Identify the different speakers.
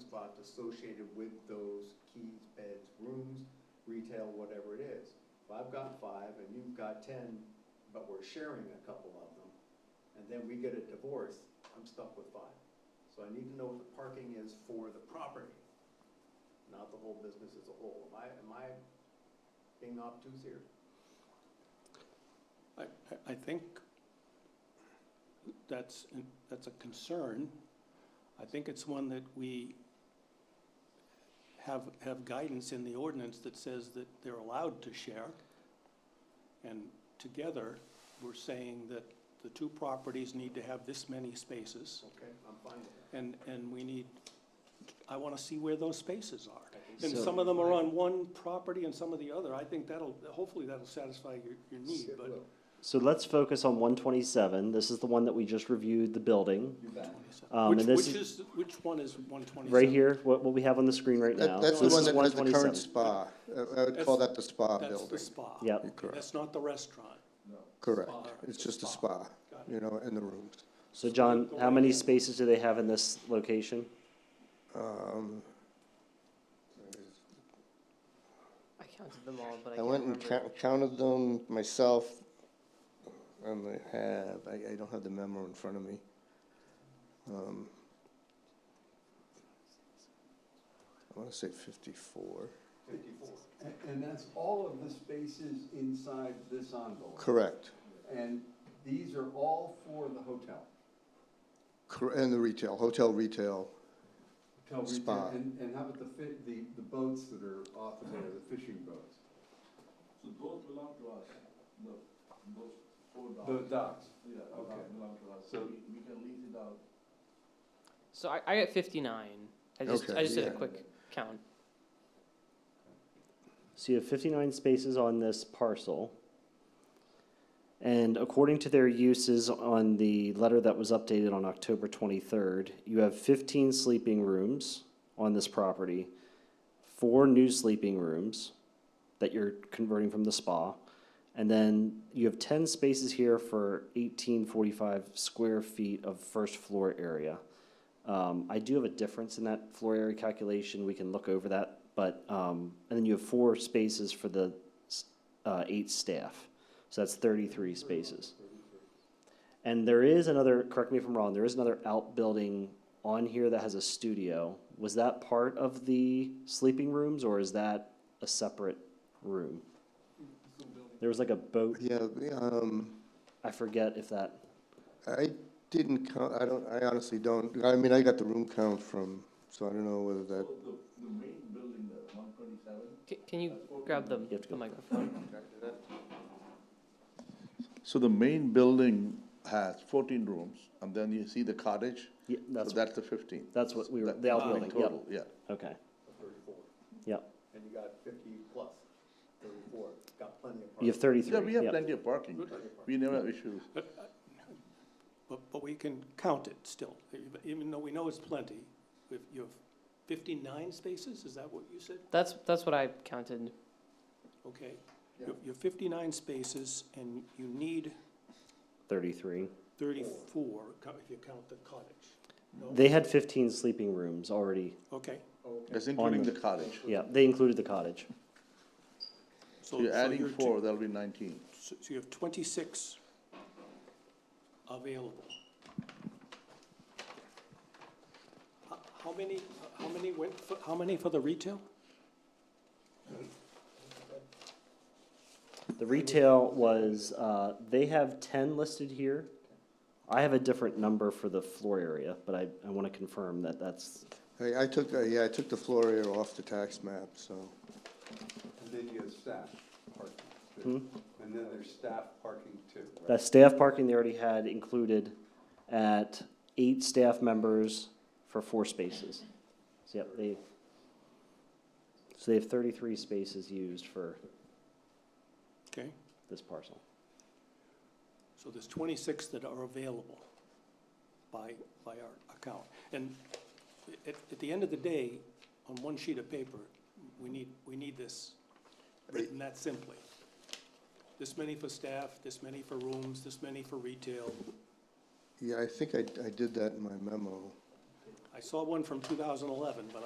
Speaker 1: spots associated with those keys, beds, rooms, retail, whatever it is. If I've got five and you've got ten, but we're sharing a couple of them, and then we get a divorce, I'm stuck with five. So I need to know what the parking is for the property, not the whole business as a whole. Am I, am I being obtuse here?
Speaker 2: I, I- I think that's, that's a concern. I think it's one that we have, have guidance in the ordinance that says that they're allowed to share. And together, we're saying that the two properties need to have this many spaces.
Speaker 1: Okay, I'm fine with that.
Speaker 2: And, and we need, I want to see where those spaces are.
Speaker 1: I think
Speaker 2: And
Speaker 1: so.
Speaker 2: some of them are on one property and some of the other. I think that'll, hopefully that'll satisfy your, your need,
Speaker 1: It
Speaker 2: but.
Speaker 1: will.
Speaker 3: So let's focus on 127. This is the one that we just reviewed, the building.
Speaker 1: You bet.
Speaker 3: Um,
Speaker 2: Which,
Speaker 3: and this
Speaker 2: which is, which one is one twenty-seven?
Speaker 3: Right here, what, what we have on the screen right now.
Speaker 4: That- That's the
Speaker 3: This
Speaker 4: one
Speaker 3: is
Speaker 4: that has the current
Speaker 3: 127.
Speaker 4: spa. Uh, I would call that the spa
Speaker 2: That's the
Speaker 4: building.
Speaker 2: spa.
Speaker 3: Yep.
Speaker 2: Okay,
Speaker 4: Correct.
Speaker 2: That's not the restaurant.
Speaker 4: Correct.
Speaker 2: Spa.
Speaker 4: It's just a
Speaker 2: Spa.
Speaker 4: spa,
Speaker 2: Got it.
Speaker 4: you know, and the rooms.
Speaker 3: So John,
Speaker 2: The
Speaker 3: how
Speaker 2: way
Speaker 3: many
Speaker 2: in.
Speaker 3: spaces do they have in this location?
Speaker 4: Um,
Speaker 5: I counted them all, but I
Speaker 4: I
Speaker 5: can't
Speaker 4: went and
Speaker 5: remember.
Speaker 4: cou- counted them myself, and they have, I, I don't have the memo in front of me. Um, I want to say 54.
Speaker 1: Fifty-four.
Speaker 6: And- And that's all of the spaces inside this envelope.
Speaker 4: Correct.
Speaker 6: And these are all for the hotel.
Speaker 4: Cor- And the retail, hotel retail.
Speaker 6: Hotel retail.
Speaker 4: Spa.
Speaker 6: And, and how about the fit, the, the boats that are off of there, the fishing boats?
Speaker 7: So those belong to us, no, those four dogs.
Speaker 6: The docks.
Speaker 7: Yeah, those
Speaker 6: Okay.
Speaker 7: belong to us,
Speaker 6: So-
Speaker 7: so we, we can lease it out.
Speaker 5: So I, I got fifty-nine. I just,
Speaker 4: Okay,
Speaker 5: I just did a
Speaker 4: yeah.
Speaker 5: quick count.
Speaker 3: So you have 59 spaces on this parcel. And according to their uses on the letter that was updated on October 23rd, you have 15 sleeping rooms on this property, four new sleeping rooms that you're converting from the spa, and then you have 10 spaces here for 1845 square feet of first floor area. Um, I do have a difference in that floor area calculation. We can look over that, but um, and then you have four spaces for the s- uh, eight staff, so that's 33 spaces. And there is another. Correct me if I'm wrong. There is another outbuilding on here that has a studio. Was that part of the sleeping rooms, or is that a separate room? There was like a boat.
Speaker 4: Yeah, the, um,
Speaker 3: I forget if that.
Speaker 4: I didn't count, I don't, I honestly don't, I mean, I got the room count from, so I don't know whether
Speaker 7: So
Speaker 4: that
Speaker 7: the, the main building, the one twenty-seven,
Speaker 5: Can, can you grab the,
Speaker 3: Uh, have to
Speaker 5: the
Speaker 3: go.
Speaker 5: microphone?
Speaker 7: So the main building has fourteen rooms, and then you see the cottage,
Speaker 3: Yeah,
Speaker 7: so
Speaker 3: that's
Speaker 7: that's the fifteen.
Speaker 3: that's what we were.
Speaker 7: That-
Speaker 3: The outbuilding.
Speaker 7: Total,
Speaker 3: Yep.
Speaker 7: yeah.
Speaker 3: Okay.
Speaker 1: Thirty-four.
Speaker 3: Yep.
Speaker 1: And you got fifty plus, thirty-four. Got plenty of
Speaker 3: You have
Speaker 1: parking.
Speaker 3: 33.
Speaker 7: Yeah, we have
Speaker 3: yep.
Speaker 7: plenty of parking, we never have issues.
Speaker 2: But, but we can count it still, even though we know it's plenty. If you have fifty-nine spaces, is that what you said?
Speaker 5: That's, that's what I counted.
Speaker 2: Okay. You you have fifty-nine spaces and you need
Speaker 3: 33.
Speaker 2: thirty-four co- if you count the cottage. No?
Speaker 3: They had 15 sleeping rooms already.
Speaker 2: Okay.
Speaker 7: That's including
Speaker 3: the-
Speaker 7: the cottage.
Speaker 3: Yeah, they included the cottage.
Speaker 2: So
Speaker 7: So you're
Speaker 2: so
Speaker 7: adding
Speaker 2: you're two-
Speaker 7: four, that'll be nineteen.
Speaker 2: So so you have twenty-six available. How- How many, how many went, for- how many for the retail?
Speaker 3: The retail was, uh, they have 10 listed here. I have a different number for the floor area, but I, I want to confirm that that's,
Speaker 4: I, I took, uh, yeah, I took the floor area off the tax map, so,
Speaker 6: And then you have staff parking too. And then there's staff parking too. right?
Speaker 3: that staff parking they already had included at eight staff members for four spaces. So, yep, they, so they have 33 spaces used for
Speaker 2: Okay,
Speaker 3: this parcel.
Speaker 2: so there's twenty-six that are available by, by our account. And at, at the end of the day, on one sheet of paper, we need, we need this written that simply. This many for staff, this many for rooms, this many for retail.
Speaker 4: yeah, I think I, I did that in my memo.
Speaker 2: I saw one from two thousand eleven, but